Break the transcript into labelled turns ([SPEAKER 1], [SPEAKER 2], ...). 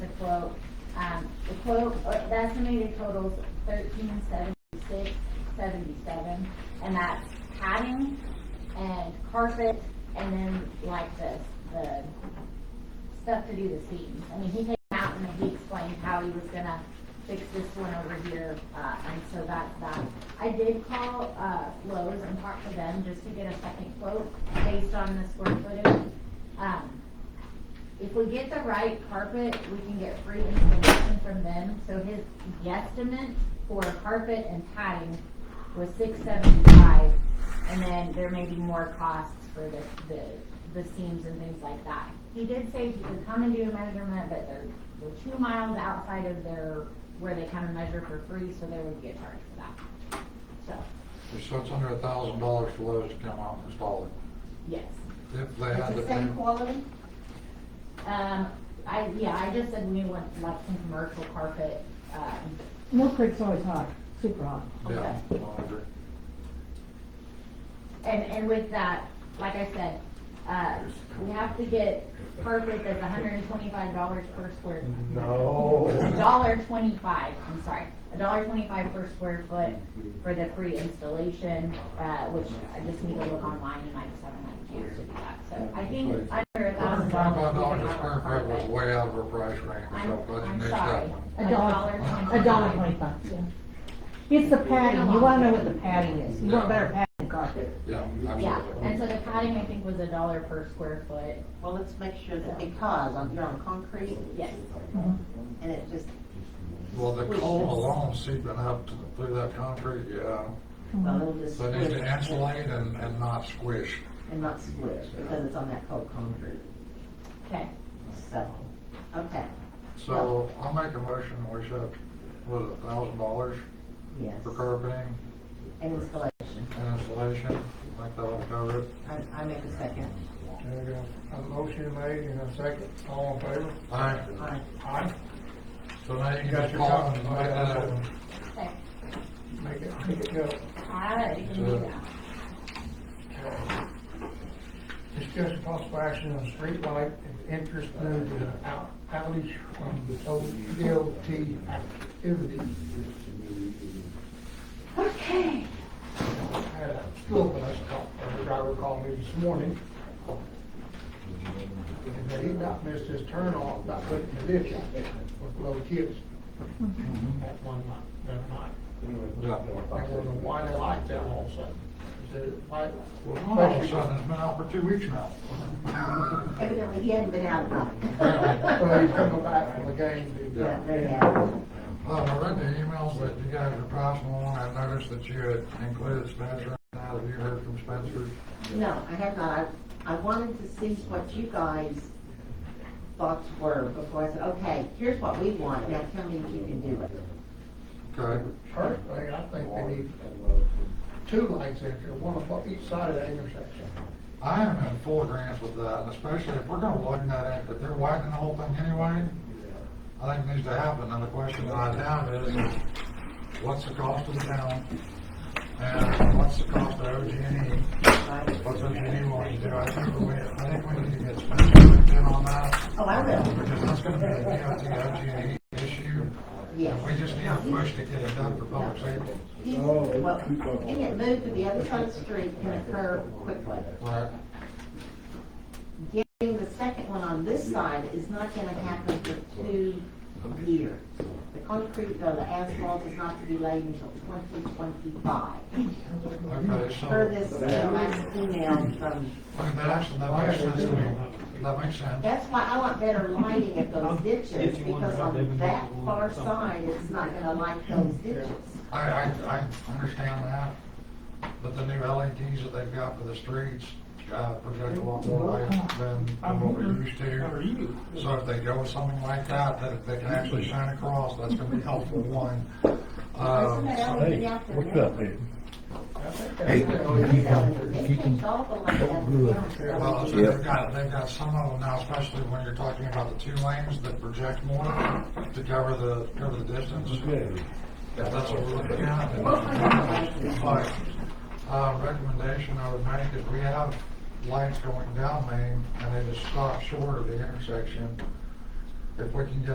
[SPEAKER 1] quote. Um, the quote, uh, the estimated total's thirteen seventy-six, seventy-seven, and that's padding and carpet, and then like the, the stuff to do the seams. I mean, he came out and he explained how he was gonna fix this one over here, uh, and so that's that. I did call, uh, Lowe's and talk to them just to get a second quote based on the square footage. Um, if we get the right carpet, we can get free installation from them, so his guesstimate for carpet and padding was six seventy-five, and then there may be more costs for the, the, the seams and things like that. He did say he could come and do a measurement, but they're, they're two miles outside of their, where they come and measure for free, so they would get charged for that. So,
[SPEAKER 2] So it's under a thousand dollars for Lowe's to come out and install
[SPEAKER 1] yes.
[SPEAKER 2] it. If they had the.
[SPEAKER 3] same quality?
[SPEAKER 1] Um, I, yeah, I just said we want like some commercial carpet, um,
[SPEAKER 4] Mill Creek's always hot, super hot.
[SPEAKER 2] Yeah,
[SPEAKER 1] Okay.
[SPEAKER 2] I agree.
[SPEAKER 1] And, and with that, like I said, uh, we have to get carpet that's hundred and twenty-five dollars per square.
[SPEAKER 2] No.
[SPEAKER 1] Dollar twenty-five, I'm sorry, a dollar twenty-five per square foot for the free installation, uh, which I just need to look online and I just haven't had a chance to do that. So I think under a thousand
[SPEAKER 2] Twenty-five dollars
[SPEAKER 1] dollars.
[SPEAKER 2] a square foot was way out of our price range,
[SPEAKER 1] I'm,
[SPEAKER 2] so let's
[SPEAKER 1] I'm
[SPEAKER 2] nix
[SPEAKER 1] sorry,
[SPEAKER 2] that one.
[SPEAKER 1] a dollar twenty-five.
[SPEAKER 4] A dollar twenty-five, yeah. It's the padding, you wanna know what the padding is, you want better padding than carpet.
[SPEAKER 2] Yeah,
[SPEAKER 1] Yeah, and
[SPEAKER 2] absolutely.
[SPEAKER 1] so the padding I think was a dollar per square foot,
[SPEAKER 3] Well, let's make sure that because on- you're on concrete
[SPEAKER 1] yes.
[SPEAKER 3] and it just,
[SPEAKER 2] Well, the cold alone seeping up to, the- through that concrete, yeah.
[SPEAKER 3] well, it'll just
[SPEAKER 2] So it needs to
[SPEAKER 3] squish
[SPEAKER 2] insulate and, and not squish.
[SPEAKER 3] and not squish because it's on that cold concrete.
[SPEAKER 1] Okay,
[SPEAKER 3] So, okay,
[SPEAKER 2] So I'll make a motion, we should, what, a thousand dollars
[SPEAKER 3] yes.
[SPEAKER 2] for carpeting
[SPEAKER 3] And installation.
[SPEAKER 2] and installation? I think that'll cover it.
[SPEAKER 3] I, I make a second.
[SPEAKER 5] There you go. A motion made and a second, all in favor?
[SPEAKER 2] All right,
[SPEAKER 3] Aye.
[SPEAKER 5] Aye.
[SPEAKER 2] so now you can
[SPEAKER 5] Got
[SPEAKER 2] just
[SPEAKER 5] your
[SPEAKER 2] call Uh,
[SPEAKER 5] copy.
[SPEAKER 2] and make that happen.
[SPEAKER 1] okay,
[SPEAKER 5] Make it, make it go.
[SPEAKER 1] alright, you can do that.
[SPEAKER 5] uh, Discuss possible action on streetlight and interest moved to out, outage from the ODLT activity.
[SPEAKER 1] Okay.
[SPEAKER 5] I had a school bus call, a driver called me this morning. And that he not missed his turn off by putting the ditch out there with little kids. That one night, that night. I wonder why they like that all of a sudden. Is it, why?
[SPEAKER 2] Well, all of a sudden, it's been out for two weeks now.
[SPEAKER 3] Evidently, he hadn't been out
[SPEAKER 5] Well, he's coming
[SPEAKER 3] long.
[SPEAKER 5] back from the game.
[SPEAKER 3] Yeah, there you go.
[SPEAKER 2] Uh, I read the emails that you guys are passing along, I noticed that you had included Spencer, now have you heard from Spencer?
[SPEAKER 3] No, I have not. I I wanted to see what you guys thoughts were before I said, okay, here's what we want, now tell me if you can do it.
[SPEAKER 2] Okay,
[SPEAKER 5] Personally, I think they need two lights in there, one on each side of that intersection.
[SPEAKER 2] I am in full agreement with that, and especially if we're gonna widen that, if they're widening the whole thing anyway, I think it needs to happen, and the question that I have is, what's the cost of the town? And what's the cost of OG&E? What's OG&E wanting E to do? I think we, I think we need to get Spencer looked in on that.
[SPEAKER 3] Oh, I will.
[SPEAKER 2] Because that's gonna be a DOT, OG&E E issue.
[SPEAKER 3] Yes.
[SPEAKER 2] We just need a push to get it done for public safety.
[SPEAKER 3] He- Well, he had moved to the other side of the street and it curved quickly.
[SPEAKER 2] Right.
[SPEAKER 3] Getting the second one on this side is not gonna happen for two years. The concrete or the asphalt is not to be laid until twenty twenty-five.
[SPEAKER 2] Okay, so,
[SPEAKER 3] Per this uh, last email from
[SPEAKER 2] okay, that actually, that makes sense to me. That makes sense.
[SPEAKER 3] That's why I want better lighting at those ditches, because on that far side, it's not gonna light those ditches.
[SPEAKER 2] I, I, I understand that, but the new LEDs that they've got for the streets, uh, project a lot more light than than what we're used to. So if they go with something like that, that if they can actually shine across, that's gonna be helpful, one.
[SPEAKER 3] Isn't
[SPEAKER 2] Um,
[SPEAKER 3] that LED out there
[SPEAKER 6] What's
[SPEAKER 3] now?
[SPEAKER 6] up, man?
[SPEAKER 3] They changed all the light out there.
[SPEAKER 2] Well, I think they've got, they've got some of them now, especially when you're talking about the two lanes that project more to cover the, cover the distance. If that's what we're looking at. then- But, uh, recommendation I would make is we have lights going down Main and they just stop short of the intersection. If we can get